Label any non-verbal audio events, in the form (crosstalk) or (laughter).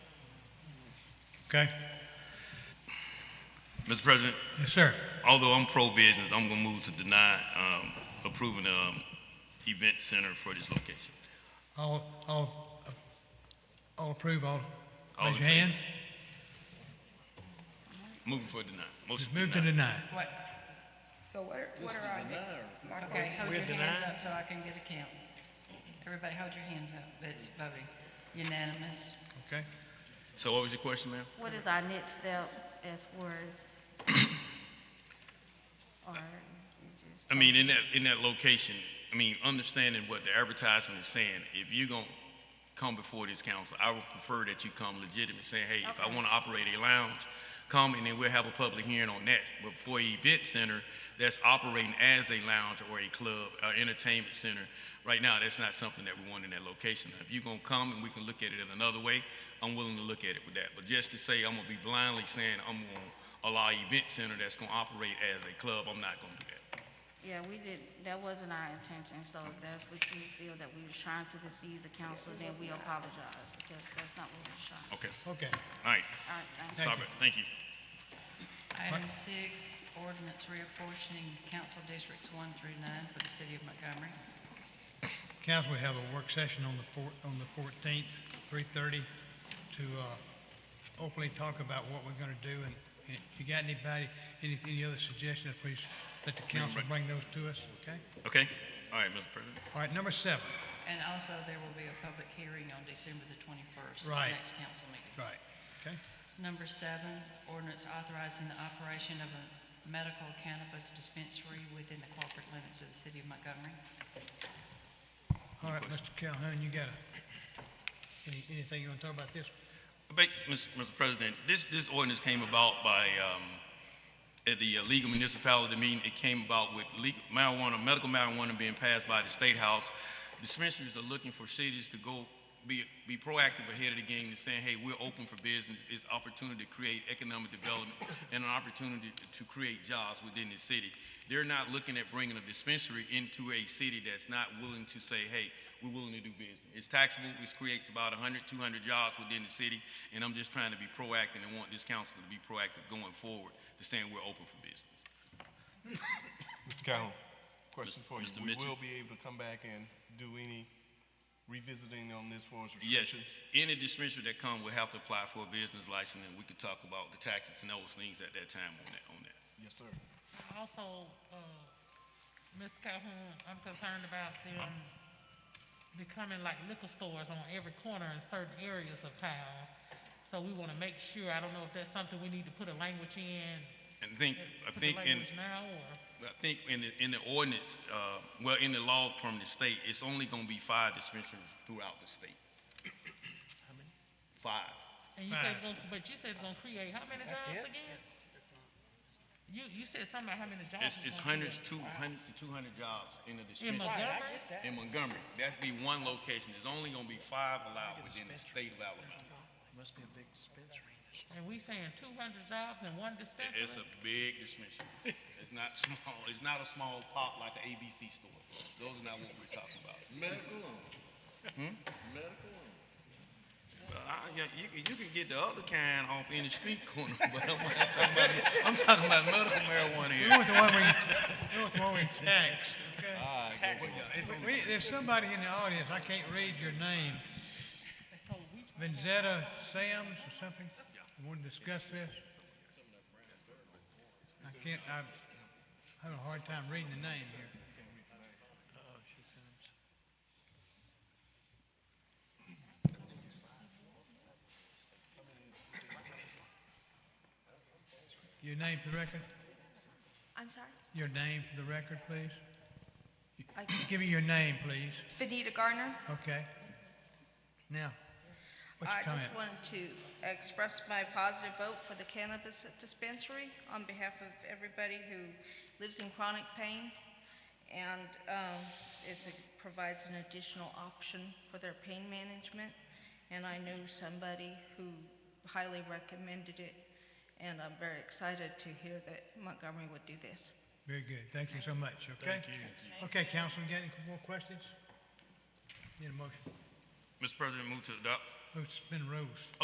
Okay? Mr. President, Yes, sir. although I'm pro-business, I'm gonna move to deny um, approving the um, event center for this location. All, all, all approve, all, All raise in your favor. hand. Moving for deny. Motion Just to move to deny. deny. What, So what are, what are our next? Mark, okay, hold your hands denied. up so I can get a count. Everybody hold your hands up, that's voting, unanimous. Okay? So what was your question, ma'am? What is our next step as far as? (coughs) Or, I mean, in that, in that location, I mean, understanding what the advertisement is saying, if you're gonna come before this council, I would prefer that you come legitimate, saying, hey, if I wanna operate a lounge, come and then we'll have a public hearing on that. But for an event center that's operating as a lounge or a club, or entertainment center, right now, that's not something that we want in that location. If you're gonna come and we can look at it in another way, I'm willing to look at it with that. But just to say I'm gonna be blindly saying I'm gonna allow an event center that's gonna operate as a club, I'm not gonna do that. yeah, we did, that wasn't our intention, so if that's what you feel that we were trying to deceive the council, then we apologize, because that's not what we were trying. Okay, Okay. all right, All right, thank you. stop it, thank you. Item six, ordinance reapportioning council districts one through nine for the city of Montgomery. Council, we have a work session on the four, on the fourteenth, three thirty, to, uh, openly talk about what we're gonna do, and, and if you got anybody, any, any other suggestions, please let the council bring those to us, okay? Okay, all right, Mr. President. All right, number seven, And also, there will be a public hearing on December the twenty-first, the Right. next council meeting. right, okay? Number seven, ordinance authorizing the operation of a medical cannabis dispensary within the corporate limits of the city of Montgomery. All right, Mr. Calhoun, you got a, any, anything you wanna talk about this? Ba- Mr. Mr. President, this, this ordinance came about by, um, at the uh, legal municipality meeting, it came about with legal marijuana, medical marijuana being passed by the State House. Dispensaries are looking for cities to go, be, be proactive ahead of the game and saying, hey, we're open for business. It's opportunity to create economic development and an opportunity to create jobs within the city. They're not looking at bringing a dispensary into a city that's not willing to say, hey, we're willing to do business. It's taxable, it creates about 100, 200 jobs within the city, and I'm just trying to be proactive and want this council to be proactive going forward to saying we're open for business. Mr. Calhoun, question for you. Mr. We Mitchell. will be able to come back and do any revisiting on this for us Yes, restrictions? any dispensary that come will have to apply for a business license, and we can talk about the taxes and those things at that time on that, on that. Yes, sir. Also, uh, Ms. Calhoun, I'm concerned about them becoming like liquor stores on every corner in certain areas of town. So we want to make sure, I don't know if that's something we need to put a language in, And think, I put the think, in. language now, or? I think in the, in the ordinance, uh, well, in the law from the state, it's only gonna be five dispensaries throughout the state. How many? Five. And you said it's gonna, but you said it's gonna create how many jobs again? You, you said something about how many jobs. It's, it's gonna hundreds, create. two, hundreds to two hundred jobs in the In dispensary. Montgomery? In Montgomery, that'd be one location, there's only gonna be five allowed within the state of Alabama. And we saying two hundred jobs in one dispensary? It's a big dispensary, it's not small, it's not a small pop like the ABC store, those are not what we're talking about. Hmm? Medical Medical you, can- you can get the other kind off in the street corner, (laughs) but I'm not talking about, I'm talking about medical marijuana We here. want the one we, we want the one we tax, okay? Ah, If we- There's somebody in the audience, I can't read your name. Vanzetta Sams or something? Want to discuss this? I can't, I'm having a hard time reading the name here. Your name for the record? I'm sorry? Your name for the record, please? I (coughs) can't- Give me your name, please. Benita Gardner. Okay. Now, what's I your just comment? wanted to express my positive vote for the cannabis dispensary on behalf of everybody who lives in chronic pain. And um, it's a- provides an additional option for their pain management. And I know somebody who highly recommended it. And I'm very excited to hear that Montgomery would do this. Very good. Thank you so much, okay? Thank you. Okay, Councilman, got any more questions? Need a motion? Mr. President, move to adopt. Move to suspend rules.